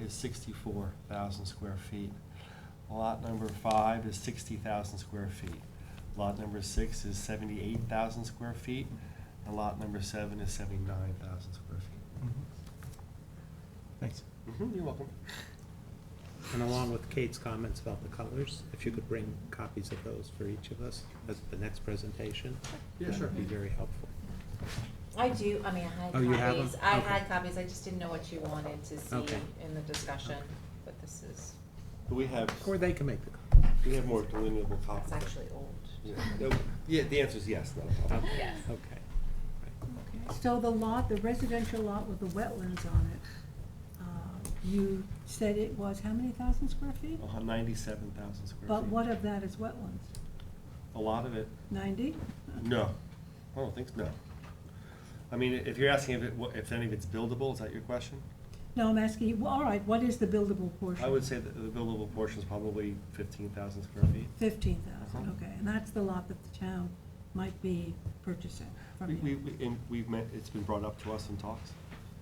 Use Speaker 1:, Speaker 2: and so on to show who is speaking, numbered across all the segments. Speaker 1: is sixty-four thousand square feet. Lot number five is sixty thousand square feet. Lot number six is seventy-eight thousand square feet, and lot number seven is seventy-nine thousand square feet.
Speaker 2: Thanks.
Speaker 1: Mhm, You're welcome.
Speaker 3: And along with Kate's comments about the colors, if you could bring copies of those for each of us as the next presentation.
Speaker 1: Yeah, sure.
Speaker 3: That would be very helpful.
Speaker 4: I do, I mean, I had
Speaker 3: Oh, you have
Speaker 4: copies,
Speaker 3: them?
Speaker 4: I
Speaker 3: Okay.
Speaker 4: had copies, I just didn't know what you wanted to see
Speaker 3: Okay.
Speaker 4: in the discussion,
Speaker 3: Okay.
Speaker 4: but this is,
Speaker 1: We have,
Speaker 3: Or they can make the copies.
Speaker 1: we have more delineable copies.
Speaker 4: it's actually old.
Speaker 1: Yeah, no, Yeah, the answer is yes, not a problem.
Speaker 3: Okay.
Speaker 4: Yes.
Speaker 3: Okay. Right.
Speaker 5: So the lot, the residential lot with the wetlands on it, uh, you said it was how many thousand square feet?
Speaker 1: Ninety-seven thousand square Oh, feet.
Speaker 5: But what of that is wetlands?
Speaker 1: A lot of it,
Speaker 5: Ninety?
Speaker 1: no. I don't think, so, no. I mean, if you're asking if it, wa- if any of it's buildable, is that your question?
Speaker 5: No, I'm asking you, well, all right, what is the buildable portion?
Speaker 1: I would say that the buildable portion is probably fifteen thousand square feet.
Speaker 5: Fifteen thousand,
Speaker 1: Uh-huh.
Speaker 5: okay, and that's the lot that the town might be purchasing from
Speaker 1: We,
Speaker 5: you.
Speaker 1: we, we- and we've met, it's been brought up to us in talks.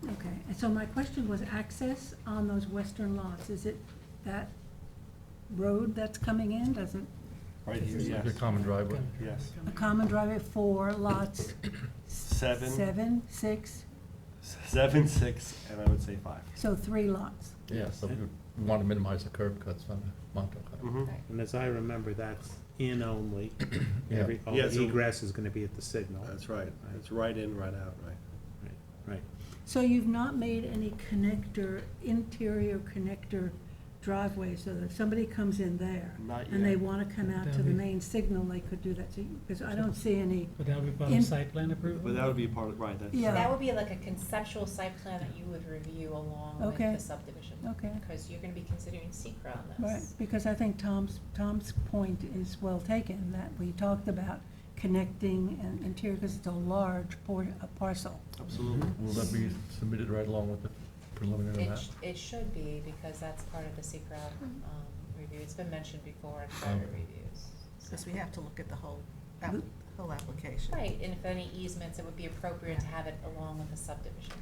Speaker 5: Okay, and so my question was access on those western lots, is it that road that's coming in, does it,
Speaker 1: Right here, yes,
Speaker 2: The common driveway.
Speaker 1: yes.
Speaker 5: a common driveway for lots?
Speaker 1: Seven.
Speaker 5: Seven, six,
Speaker 1: S- Seven, six, and I would say five.
Speaker 5: so three lots.
Speaker 2: Yeah, so we want to minimize the curb cuts on the Montauk. Highway.
Speaker 1: Mhm.
Speaker 4: Right.
Speaker 3: And as I remember, that's in only.
Speaker 2: Yeah.
Speaker 3: Every, all
Speaker 1: Yeah, so-
Speaker 3: egress is gonna be at the signal.
Speaker 1: That's right. It's right in, right out, right?
Speaker 3: Right, Right.
Speaker 5: So you've not made any connector, interior connector driveway, so that if somebody comes in there
Speaker 1: Not
Speaker 5: and they
Speaker 1: yet.
Speaker 5: wanna come out to the main signal, they could do that, so, because I don't see any,
Speaker 6: Would that be part of
Speaker 5: In-
Speaker 6: site plan approval?
Speaker 1: But that would be part of, right, that's.
Speaker 5: Yeah.
Speaker 4: That would be like a conceptual site plan that you would review along with
Speaker 5: Okay.
Speaker 4: the subdivision.
Speaker 5: Okay.
Speaker 4: Because you're gonna be considering secra on
Speaker 5: right,
Speaker 4: this.
Speaker 5: because I think Tom's, Tom's point is well taken, that we talked about connecting and interior, because it's a large por- a parcel.
Speaker 1: Absolutely.
Speaker 2: Will that be submitted right along with the preliminary
Speaker 4: It,
Speaker 2: map?
Speaker 4: sh- it should be, because that's part of the secra, um, review, it's been mentioned before in prior
Speaker 2: Okay.
Speaker 4: reviews. so-
Speaker 7: Because we have to look at the whole, app-
Speaker 5: Mm.
Speaker 7: whole application.
Speaker 4: Right, and if any easements, it would be appropriate to have it along with the subdivision,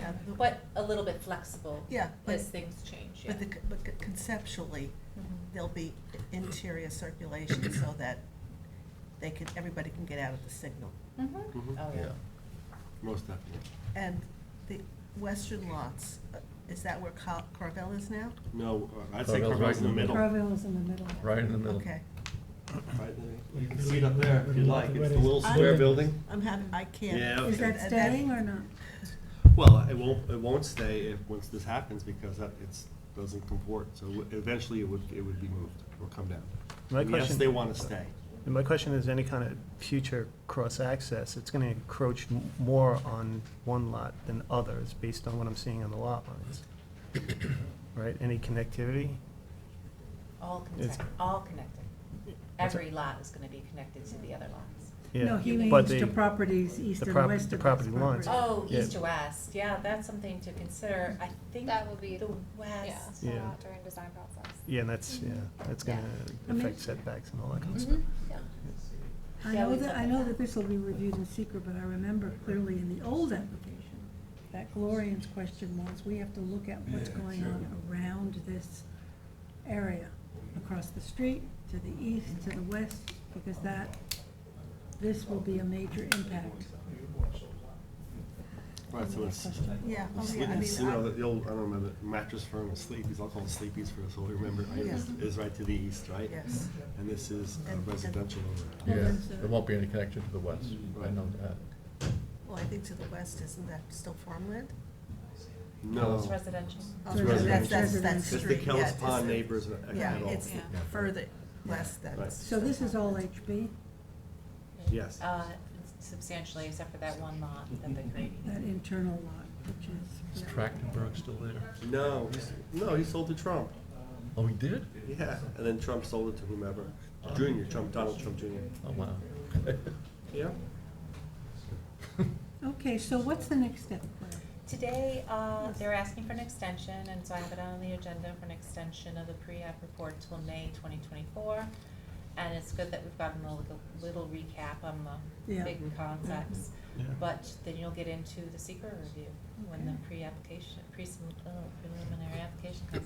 Speaker 7: Uh,
Speaker 4: but a little bit flexible
Speaker 7: Yeah, but,
Speaker 4: as things change, yeah.
Speaker 7: but the c- but c- conceptually,
Speaker 4: Mhm.
Speaker 7: there'll be interior circulation so that they can, everybody can get out of the signal.
Speaker 8: Mm-hmm.
Speaker 4: Mhm.
Speaker 1: Mhm.
Speaker 4: Oh, yeah.
Speaker 1: Most definitely.
Speaker 7: And the western lots, uh, is that where Car- Carvel is now?
Speaker 1: No, uh, I'd say
Speaker 2: Carvel's
Speaker 1: Carvel's in the middle. Right,
Speaker 5: Provo is in the middle.
Speaker 2: Right in the middle.
Speaker 7: Okay,
Speaker 1: there. You can see it up there if you like. It's the little
Speaker 6: I-
Speaker 1: square building.
Speaker 7: I'm happy, I can't.
Speaker 1: Yeah.
Speaker 5: Is that
Speaker 7: and
Speaker 5: staying or not?
Speaker 1: Well, it won't, it won't stay if, once this happens because that, it's, doesn't comport. So w- eventually it would, it would be moved or come down.
Speaker 8: My
Speaker 1: And Yes,
Speaker 8: question-
Speaker 1: they want to stay.
Speaker 8: And my question is, any kind of future cross-access, it's gonna encroach m- more on one lot than others, based on what I'm seeing on the lot lines. Right, any connectivity?
Speaker 4: All
Speaker 8: It's-
Speaker 4: connected, all connected.
Speaker 8: What's that?
Speaker 4: Every lot is gonna be connected to the other lots.
Speaker 8: Yeah,
Speaker 5: No, he means
Speaker 8: but
Speaker 5: to
Speaker 8: the-
Speaker 5: properties east
Speaker 8: the
Speaker 5: and
Speaker 8: prop-
Speaker 5: west of
Speaker 8: the
Speaker 5: his
Speaker 8: property lines.
Speaker 5: property.
Speaker 4: Oh,
Speaker 8: Yeah.
Speaker 4: east to west, yeah, that's something to consider, I think
Speaker 9: That would be,
Speaker 4: the
Speaker 9: yeah,
Speaker 4: west.
Speaker 8: Yeah.
Speaker 9: out during design process.
Speaker 8: Yeah, and that's, yeah, that's
Speaker 9: Yeah.
Speaker 8: gonna
Speaker 5: I mean-
Speaker 8: affect setbacks and all that kind of stuff.
Speaker 4: Mhm, yeah.
Speaker 5: I
Speaker 4: Yeah,
Speaker 5: know
Speaker 4: we
Speaker 5: that,
Speaker 4: looked
Speaker 5: I
Speaker 4: at
Speaker 5: know
Speaker 4: that.
Speaker 5: that this will be reviewed in secret, but I remember clearly in the old application, that Gloria's question was, we have to look at what's going on around this area, across the street, to the east, to the west, because that, this will be a major impact.
Speaker 1: Right, so it's.
Speaker 7: Yeah,
Speaker 1: The
Speaker 7: oh,
Speaker 1: Sleep-
Speaker 7: yeah, I
Speaker 1: you know,
Speaker 7: mean,
Speaker 1: the old, I don't remember, mattress firm or Sleepy's, I'll call it Sleepy's for us all, remember, right, is- is right to the east,
Speaker 7: I,
Speaker 1: right?
Speaker 7: yes.
Speaker 1: And this is a
Speaker 7: And- and-
Speaker 1: residential
Speaker 2: Yeah,
Speaker 1: overlap.
Speaker 5: there's a-
Speaker 2: there won't be any connection to the west. I know that.
Speaker 7: Well, I think to the west, isn't that still farmland?
Speaker 4: It's
Speaker 1: No,
Speaker 4: residential.
Speaker 7: Oh,
Speaker 5: It's
Speaker 7: That's, that's,
Speaker 5: residential.
Speaker 7: that's
Speaker 1: it's
Speaker 7: street,
Speaker 1: the
Speaker 7: yeah.
Speaker 1: Kellis
Speaker 7: it's-
Speaker 1: Pond neighbors at
Speaker 7: Yeah,
Speaker 1: at all.
Speaker 7: it's
Speaker 4: Yeah.
Speaker 7: further west than.
Speaker 1: Right.
Speaker 5: So this is all HB,
Speaker 1: Yes.
Speaker 4: Uh, substantially, except for that one lot that
Speaker 8: Mm-hmm.
Speaker 4: they're creating.
Speaker 5: that internal lot, which
Speaker 2: Is
Speaker 5: is.
Speaker 2: Trachtenberg still there?
Speaker 1: No, he's, no, he sold to Trump,
Speaker 2: Oh, he did?
Speaker 1: yeah, and then Trump sold it to whomever, Junior, Trump, Donald Trump Junior.
Speaker 2: Oh, wow.
Speaker 1: Yeah.
Speaker 5: Okay, so what's the next step, Claire?
Speaker 4: Today, uh, they're asking for an extension, and so I have it on the agenda for an extension of the pre-app report till May twenty twenty-four. And it's good that we've gotten a little- little recap on the
Speaker 5: Yeah.
Speaker 4: big concepts,
Speaker 8: Yeah.
Speaker 4: but then you'll get into the secret review when the pre-application, pre, uh, preliminary application